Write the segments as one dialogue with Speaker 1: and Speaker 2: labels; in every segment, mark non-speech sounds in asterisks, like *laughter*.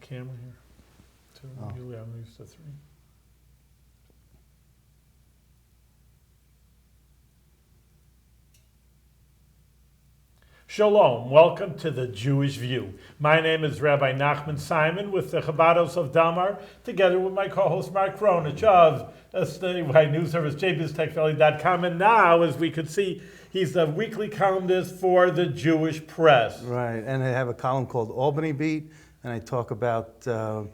Speaker 1: camera here? Two,
Speaker 2: Oh.
Speaker 1: usually I'm used to three. Shalom, welcome to the Jewish View. My name is Rabbi Nachman Simon with the Chabados of Damar, together with my co-host Mark Kronich of SNY News Service, jbiztechvalley.com, and now, as we could see, he's the weekly columnist for the Jewish Press.
Speaker 2: Right, and I have a column called Albany Beat, and I talk about uh,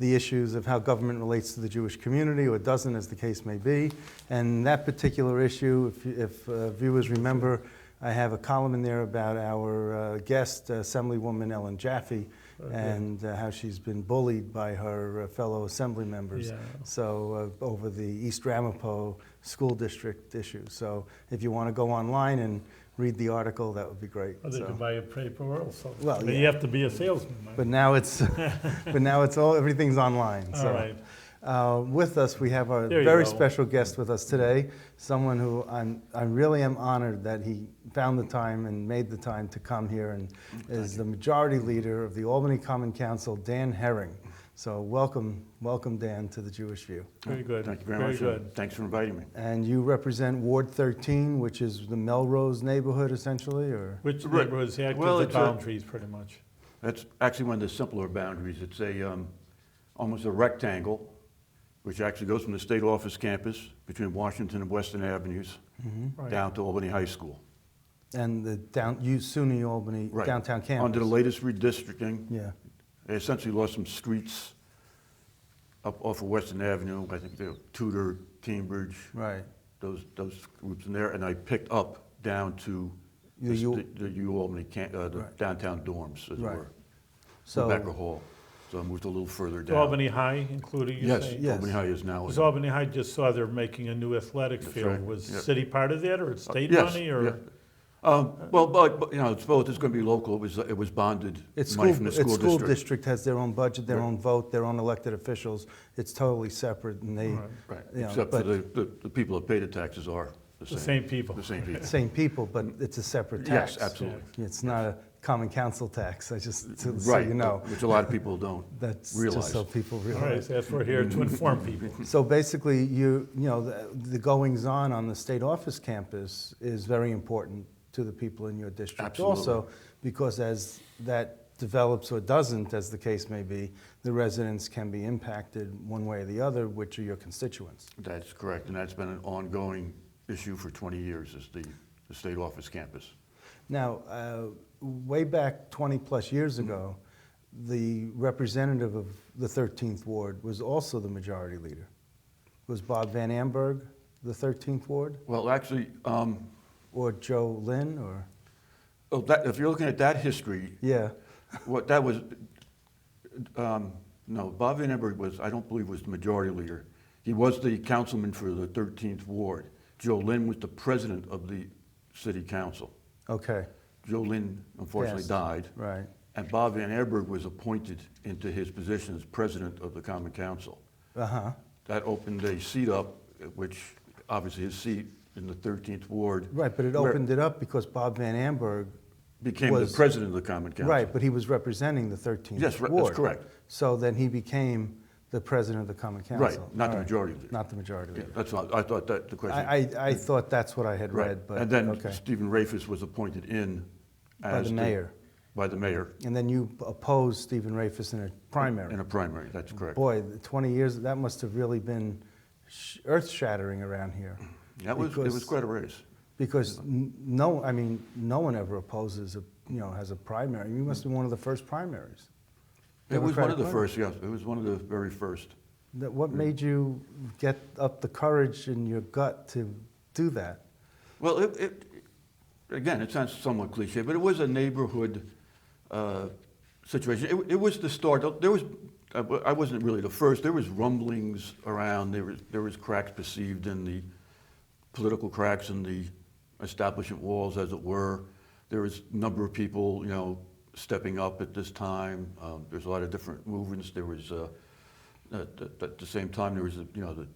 Speaker 2: the issues of how government relates to the Jewish community or doesn't, as the case may be. And that particular issue, if, you- if uh, viewers remember, I have a column in there about our uh, guest, Assemblywoman Ellen Jaffe, and uh, how she's been bullied by her uh, fellow assembly members.
Speaker 1: Yeah.
Speaker 2: So, uh, over the East Ramapo School District issue. So, if you want to go online and read the article, that would be great.
Speaker 1: Or Oh, they
Speaker 2: So-
Speaker 1: could buy a paper also.
Speaker 2: Well,
Speaker 1: But you
Speaker 2: yeah.
Speaker 1: have to be a salesman. Mike.
Speaker 2: But now it's, *laughs* but now it's all, everything's online.
Speaker 1: All right.
Speaker 2: Uh, with us, we have our
Speaker 1: There you
Speaker 2: very
Speaker 1: go.
Speaker 2: special guest with us today, someone who I'm, I really am honored that he found the time and made the time to come here and is the majority leader of the Albany Common Council, Dan Herring. So welcome, welcome Dan to the Jewish View.
Speaker 1: Very good.
Speaker 3: Thank you very much.
Speaker 1: Very
Speaker 3: and
Speaker 1: good.
Speaker 3: Thanks for inviting me.
Speaker 2: And you represent Ward 13, which is the Melrose neighborhood essentially, or?
Speaker 1: Which
Speaker 3: Right.
Speaker 1: neighborhoods act
Speaker 3: Well,
Speaker 1: as the
Speaker 3: it's a-
Speaker 1: boundaries, pretty much?
Speaker 3: That's actually one of the simpler boundaries. It's a, um, almost a rectangle, which actually goes from the state office campus between Washington and Western Avenues
Speaker 1: Right.
Speaker 3: Hmm? down to Albany High School.
Speaker 2: And the down, you, SUNY Albany
Speaker 3: Right.
Speaker 2: downtown campus?
Speaker 3: Under the latest redistricting,
Speaker 2: Yeah.
Speaker 3: they essentially lost some streets up off of Western Avenue. I think they're Tudor, Cambridge,
Speaker 2: Right.
Speaker 3: those, those groups in there. And I picked up down to
Speaker 2: The
Speaker 3: the,
Speaker 2: U-
Speaker 3: st- the U Albany, camp- uh, the
Speaker 2: Right.
Speaker 3: downtown dorms, as it
Speaker 2: Right.
Speaker 3: were.
Speaker 2: So,
Speaker 3: Rebecca Hall. So I moved a little further
Speaker 1: Is
Speaker 3: down.
Speaker 1: Albany High included, you
Speaker 3: Yes,
Speaker 1: say?
Speaker 2: Yeah.
Speaker 3: Albany High is now.
Speaker 1: Because Albany High just saw they're making a new athletic
Speaker 3: That's
Speaker 1: field.
Speaker 3: right.
Speaker 1: Was
Speaker 3: Yeah. Uh,
Speaker 1: city part of that, or it's state
Speaker 3: Yes,
Speaker 1: money, or?
Speaker 3: yeah. Um, Well, but, but, you know, it's both, it's going to be local, it was, it was bonded
Speaker 2: It's school,
Speaker 3: money from the
Speaker 2: it's
Speaker 3: school
Speaker 2: school
Speaker 3: district.
Speaker 2: district has their own budget, their
Speaker 3: Right.
Speaker 2: own vote, their own elected officials. It's totally separate and they,
Speaker 1: Right.
Speaker 3: Right,
Speaker 2: you know,
Speaker 3: except for
Speaker 2: but-
Speaker 3: the, the- the people that pay the taxes are the
Speaker 1: The
Speaker 3: same.
Speaker 1: same people.
Speaker 3: The
Speaker 2: *laughs*
Speaker 3: same people.
Speaker 2: same people, but it's a separate tax.
Speaker 3: Yes, absolutely.
Speaker 2: It's not a common council tax, I just, so- so
Speaker 3: Right,
Speaker 2: you know.
Speaker 3: which a lot of people don't
Speaker 2: That's just
Speaker 3: realize.
Speaker 2: so people
Speaker 1: All right,
Speaker 2: realize.
Speaker 1: so that's we're here to inform people.
Speaker 2: So basically, you, you know, the- the goings-on on the state office campus is very important to the people in your district
Speaker 3: Absolutely.
Speaker 2: also, because as that develops or doesn't, as the case may be, the residents can be impacted one way or the other, which are your constituents.
Speaker 3: That's correct, and that's been an ongoing issue for 20 years, is the, the state office campus.
Speaker 2: Now, uh, way back 20-plus years ago, the representative of the 13th Ward was also the majority leader. Was Bob Van Amberg the 13th Ward,
Speaker 3: Well, actually, um,
Speaker 2: or Joe Lynn, or,
Speaker 3: oh, that, if you're looking at that history,
Speaker 2: yeah?
Speaker 3: What that was, um, no, Bob Van Emberg was, I don't believe was the majority leader. He was the councilman for the 13th ward. Joe Lynn was the president of the city council.
Speaker 2: Okay,
Speaker 3: Joe Lynn unfortunately
Speaker 2: Yes.
Speaker 3: died,
Speaker 2: right.
Speaker 3: and Bob Van Emberg was appointed into his position as president of the common council.
Speaker 2: Uh-huh,
Speaker 3: That opened a seat up, which obviously his seat in the 13th ward.
Speaker 2: right, but it
Speaker 3: where-
Speaker 2: opened it up because Bob Van Amberg,
Speaker 3: Became the
Speaker 2: was-
Speaker 3: president of the common council.
Speaker 2: right, but he was representing the 13th Ward.
Speaker 3: Yes, right, that's correct.
Speaker 2: So then he became the president of the Common Council.
Speaker 3: not the
Speaker 2: All
Speaker 3: majority leader.
Speaker 2: Not the majority
Speaker 3: Yeah,
Speaker 2: leader.
Speaker 3: That's what, I thought that, the question.
Speaker 2: I, I, I thought that's what I had
Speaker 3: Right,
Speaker 2: read, but,
Speaker 3: And then
Speaker 2: okay.
Speaker 3: Stephen Rafus was appointed in as
Speaker 2: By the mayor.
Speaker 3: By the mayor
Speaker 2: And then you opposed Stephen Rafis in a primary.
Speaker 3: in a primary, that's correct.
Speaker 2: Boy, the 20 years, that must have really been sh- earth-shattering around here.
Speaker 3: That was, it was
Speaker 2: Because-
Speaker 3: quite a race.
Speaker 2: Because n- no, I mean, no one ever opposes, a you know, has a primary. You must have been one of the first primaries.
Speaker 3: It was one
Speaker 2: Democratic
Speaker 3: of the
Speaker 2: primary.
Speaker 3: first, yes, it was one of the very first.
Speaker 2: That- What made you get up the courage in your gut to do that?
Speaker 3: Well, it, it, again, it sounds somewhat cliche, but it was a neighborhood uh, situation. It, it was the start. There was, I wa- I wasn't really the first. There was rumblings around. There was there was cracks perceived in the political cracks in the establishment walls, as it were. There was a number of people, you know, stepping up at this time. Um, There's a lot of different movements. There was, uh, at, at- at the same time, there was, you know, the,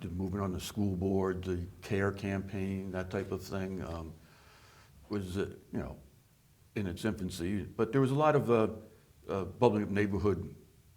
Speaker 3: the movement on the school board, the CARE campaign, that type of thing, um, was, uh, you know, in its infancy. But there was a lot of uh, uh, bubbling up neighborhood